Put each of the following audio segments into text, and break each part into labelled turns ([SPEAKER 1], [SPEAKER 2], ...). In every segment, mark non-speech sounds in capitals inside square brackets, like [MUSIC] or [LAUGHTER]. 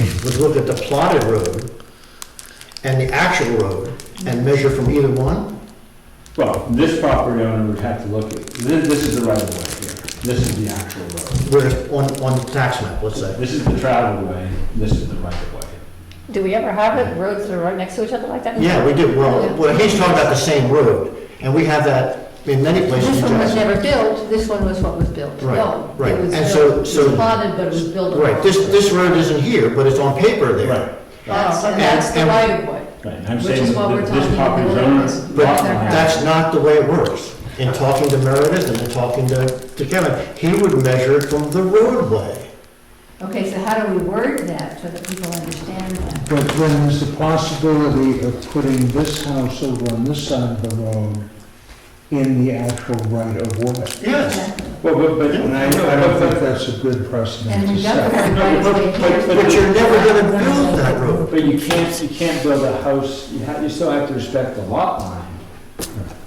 [SPEAKER 1] would look at the plotted road and the actual road and measure from either one?
[SPEAKER 2] Well, this property owner would have to look at, this, this is the right of way here. This is the actual road.
[SPEAKER 1] Whereas on, on the tax map, let's say.
[SPEAKER 2] This is the traveled way, this is the right of way.
[SPEAKER 3] Do we ever have it, roads that are right next to each other like that?
[SPEAKER 1] Yeah, we do, well, well, he's talking about the same road, and we have that in many places.
[SPEAKER 4] This
[SPEAKER 1] in
[SPEAKER 4] one was
[SPEAKER 1] Jackson.
[SPEAKER 4] never built, this one was what was built.
[SPEAKER 1] Right,
[SPEAKER 4] No,
[SPEAKER 1] right.
[SPEAKER 4] It was
[SPEAKER 1] And so-
[SPEAKER 4] built, it was
[SPEAKER 1] so-
[SPEAKER 4] plotted, but it was built. on-
[SPEAKER 1] Right, this, this road isn't here, but it's on paper there.
[SPEAKER 2] Right.
[SPEAKER 4] That's, Oh, and
[SPEAKER 1] And-
[SPEAKER 4] that's the
[SPEAKER 1] and-
[SPEAKER 4] right of way.
[SPEAKER 2] Right, and I'm
[SPEAKER 4] Which
[SPEAKER 2] saying
[SPEAKER 4] is what
[SPEAKER 2] that
[SPEAKER 4] we're
[SPEAKER 2] this
[SPEAKER 4] talking
[SPEAKER 2] property
[SPEAKER 4] about.
[SPEAKER 2] owner.
[SPEAKER 1] But
[SPEAKER 2] lot line-
[SPEAKER 1] that's not the way it works. In talking to Meredith and in talking to to Kevin, he would measure it from the roadway.
[SPEAKER 4] Okay, so how do we word that so that people understand that?
[SPEAKER 5] But then there's the possibility of putting this house over on this side of the road in the actual right of way.
[SPEAKER 1] Yes.
[SPEAKER 2] Well, but, but,
[SPEAKER 5] And I, I don't think that's a good precedent
[SPEAKER 4] And
[SPEAKER 5] to
[SPEAKER 4] we don't
[SPEAKER 5] set.
[SPEAKER 4] have right of way here.
[SPEAKER 2] But-
[SPEAKER 1] But you're never gonna build that road.
[SPEAKER 2] but you can't, you can't build a house, you have, you still have to respect the lot line.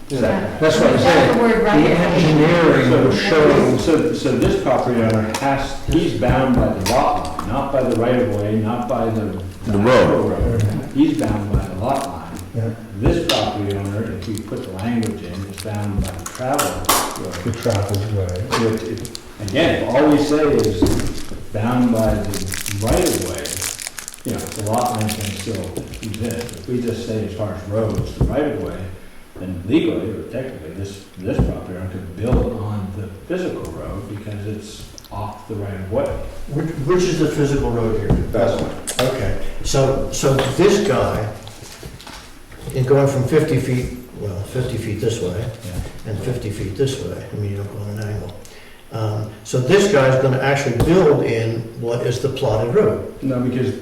[SPEAKER 4] Yeah.
[SPEAKER 5] That's what I'm
[SPEAKER 4] That's
[SPEAKER 5] saying.
[SPEAKER 4] the word
[SPEAKER 5] The
[SPEAKER 4] right of way.
[SPEAKER 5] engineering
[SPEAKER 2] So,
[SPEAKER 5] will
[SPEAKER 2] so,
[SPEAKER 5] show,
[SPEAKER 2] so- so this property owner has, he's bound by the lot line, not by the right of way, not by the.
[SPEAKER 6] The road.
[SPEAKER 2] road. He's bound by the lot line.
[SPEAKER 5] Yeah.
[SPEAKER 2] This property owner, if you put the language in, is bound by the travel
[SPEAKER 5] the
[SPEAKER 2] road.
[SPEAKER 5] traveled way.
[SPEAKER 2] Which, if- Again, if all we say is bound by the right of way, you know, the lot line can still exist. If we just say as far as roads, the right of way, then legally or technically, this, this property owner could build on the physical road because it's off the right of way.
[SPEAKER 1] Which, which is the physical road here?
[SPEAKER 2] That's one.
[SPEAKER 1] Okay, so, so this guy, in going from 50 feet, well, 50 feet this way, and 50 feet this way, I mean, you don't go on an angle. Um, So this guy's gonna actually build in what is the plotted road.
[SPEAKER 2] No, because,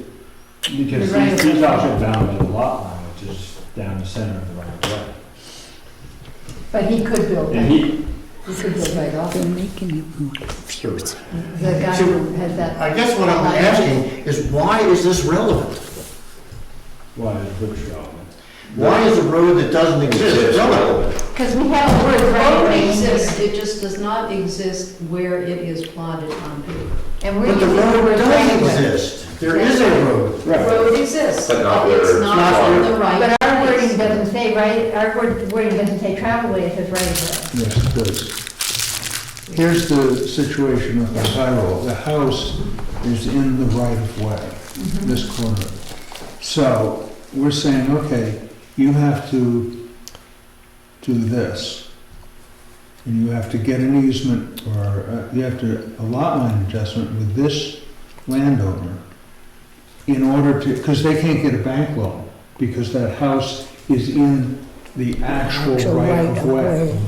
[SPEAKER 2] because
[SPEAKER 4] The right of
[SPEAKER 2] these these
[SPEAKER 4] way.
[SPEAKER 2] lots are bound by the lot line, which is down the center of the right of way.
[SPEAKER 4] But he could build
[SPEAKER 2] And
[SPEAKER 4] that,
[SPEAKER 2] he,
[SPEAKER 4] he could build right off,
[SPEAKER 7] They're making it more confusing.
[SPEAKER 4] the guy who had that.
[SPEAKER 1] I guess what I'm asking is why is this relevant?
[SPEAKER 2] why is Brooks relevant?
[SPEAKER 1] Why is a road that doesn't exist
[SPEAKER 6] Exist.
[SPEAKER 1] relevant?
[SPEAKER 4] Because we have a word right of
[SPEAKER 8] Road
[SPEAKER 4] way
[SPEAKER 8] exists,
[SPEAKER 4] here.
[SPEAKER 8] it just does not exist where it is plotted on paper.
[SPEAKER 4] And we're
[SPEAKER 1] But the
[SPEAKER 4] using the
[SPEAKER 1] road
[SPEAKER 4] word right
[SPEAKER 1] does
[SPEAKER 4] of way.
[SPEAKER 1] exist. There is a road.
[SPEAKER 8] Road exists,
[SPEAKER 6] But not
[SPEAKER 8] but
[SPEAKER 6] where
[SPEAKER 8] it's
[SPEAKER 6] it's
[SPEAKER 8] not on the right
[SPEAKER 4] But our wording
[SPEAKER 8] place.
[SPEAKER 4] doesn't say right, our word- wording doesn't say travel way, it says right of way.
[SPEAKER 5] Yes, it does. Here's the situation of the high road. The house is in the right of
[SPEAKER 4] Mm-hmm.
[SPEAKER 5] way, this corner. So we're saying, okay, you have to do this. And you have to get an easement or uh, you have to, a lot line adjustment with this landowner in order to, because they can't get a bank loan because that house is in the actual
[SPEAKER 7] Actual
[SPEAKER 5] right of
[SPEAKER 7] right-of-way.
[SPEAKER 5] way.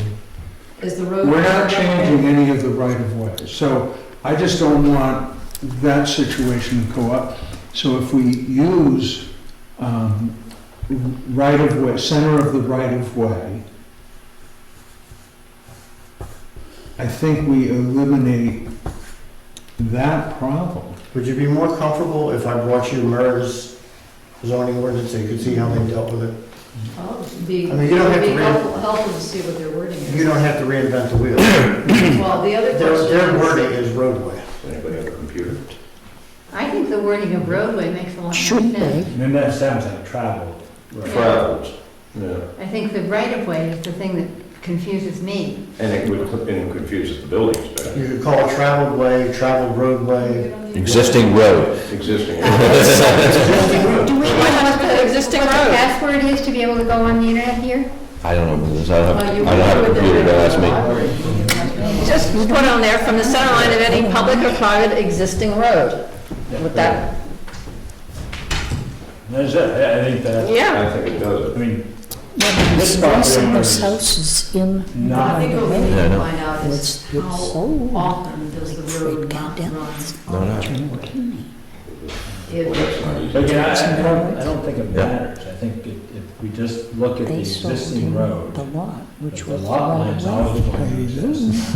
[SPEAKER 8] Is the road.
[SPEAKER 5] We're not changing any of the right of way. So I just don't want that situation to go up. So if we use um, right of way, center of the right of way, I think we eliminate that problem.
[SPEAKER 1] Would you be more comfortable if I brought you MERS zoning ordinance so you could see how they dealt with it?
[SPEAKER 8] Oh, Be,
[SPEAKER 1] I mean, you don't have
[SPEAKER 8] it'd be
[SPEAKER 1] to read-
[SPEAKER 8] helpful, helpful to see what their wording
[SPEAKER 1] You
[SPEAKER 8] is.
[SPEAKER 1] don't have to reinvent the wheel.
[SPEAKER 8] Well, the other
[SPEAKER 1] Their,
[SPEAKER 8] question
[SPEAKER 1] their
[SPEAKER 8] is-
[SPEAKER 1] wording is roadway.
[SPEAKER 6] Anybody have a computer?
[SPEAKER 4] I think the wording of roadway makes a lot of
[SPEAKER 7] Should
[SPEAKER 4] sense.
[SPEAKER 7] they?
[SPEAKER 2] And then that sounds like travel. road.
[SPEAKER 6] Travels, yeah.
[SPEAKER 4] I think the right of way is the thing that confuses me.
[SPEAKER 6] And it would, and confuses the building inspector,
[SPEAKER 1] You could call it traveled way, traveled roadway.
[SPEAKER 9] Existing road. [LAUGHS]
[SPEAKER 6] existing.
[SPEAKER 4] Do we
[SPEAKER 3] have the existing
[SPEAKER 4] What
[SPEAKER 3] road?
[SPEAKER 4] the password is to be able to go on the internet here?
[SPEAKER 9] I don't know, what it is. I don't
[SPEAKER 8] Well, uh, you
[SPEAKER 9] have, I don't have a
[SPEAKER 8] would-
[SPEAKER 9] computer to ask me.
[SPEAKER 3] Just put on there, from the center line of any public or private existing road. With that,
[SPEAKER 2] That's it, I I think that,
[SPEAKER 3] yeah.
[SPEAKER 6] I think it does
[SPEAKER 2] I
[SPEAKER 6] it.
[SPEAKER 2] mean, This
[SPEAKER 7] This
[SPEAKER 2] property
[SPEAKER 7] house and
[SPEAKER 2] owner
[SPEAKER 7] this
[SPEAKER 2] is
[SPEAKER 7] house is in Oh, the
[SPEAKER 2] not-
[SPEAKER 8] I
[SPEAKER 7] right
[SPEAKER 8] think what we
[SPEAKER 7] of
[SPEAKER 8] need
[SPEAKER 7] way.
[SPEAKER 9] Yeah, I
[SPEAKER 8] to
[SPEAKER 9] know.
[SPEAKER 8] find out
[SPEAKER 7] What's
[SPEAKER 8] is
[SPEAKER 7] the
[SPEAKER 8] how
[SPEAKER 7] soul?
[SPEAKER 8] often does the road not
[SPEAKER 7] Goddamn.
[SPEAKER 8] run?
[SPEAKER 9] No, no.
[SPEAKER 8] If-
[SPEAKER 6] Well, that's not easy.
[SPEAKER 2] but again, I I don't, I don't think it matters. I think if if we just look at the
[SPEAKER 7] They sold
[SPEAKER 2] existing
[SPEAKER 7] him
[SPEAKER 2] road,
[SPEAKER 7] the lot,
[SPEAKER 2] that
[SPEAKER 7] which
[SPEAKER 2] the
[SPEAKER 7] was the
[SPEAKER 2] lot
[SPEAKER 7] right
[SPEAKER 2] line
[SPEAKER 7] of
[SPEAKER 2] is
[SPEAKER 7] way.
[SPEAKER 2] always going to exist.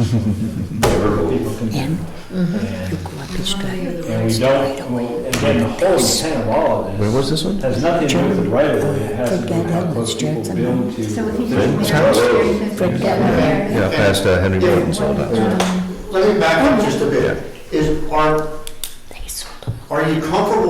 [SPEAKER 2] People can-
[SPEAKER 7] And Mm-hmm.
[SPEAKER 2] And
[SPEAKER 7] you go up this guy.
[SPEAKER 2] and we don't, well, and again, the whole intent of all of
[SPEAKER 9] Where
[SPEAKER 2] this
[SPEAKER 9] was this one?
[SPEAKER 2] has nothing to do with the right of way. It has to do with how
[SPEAKER 7] Forget
[SPEAKER 2] close
[SPEAKER 7] it,
[SPEAKER 2] people
[SPEAKER 7] Jackson.
[SPEAKER 2] build to.
[SPEAKER 4] So if you
[SPEAKER 2] the-
[SPEAKER 4] just narrow it, you can get there.
[SPEAKER 9] Yeah, past uh, Henry Jordan's all that.
[SPEAKER 1] Let me back up just a bit. Is, are,
[SPEAKER 7] They sold
[SPEAKER 1] are you comfortable with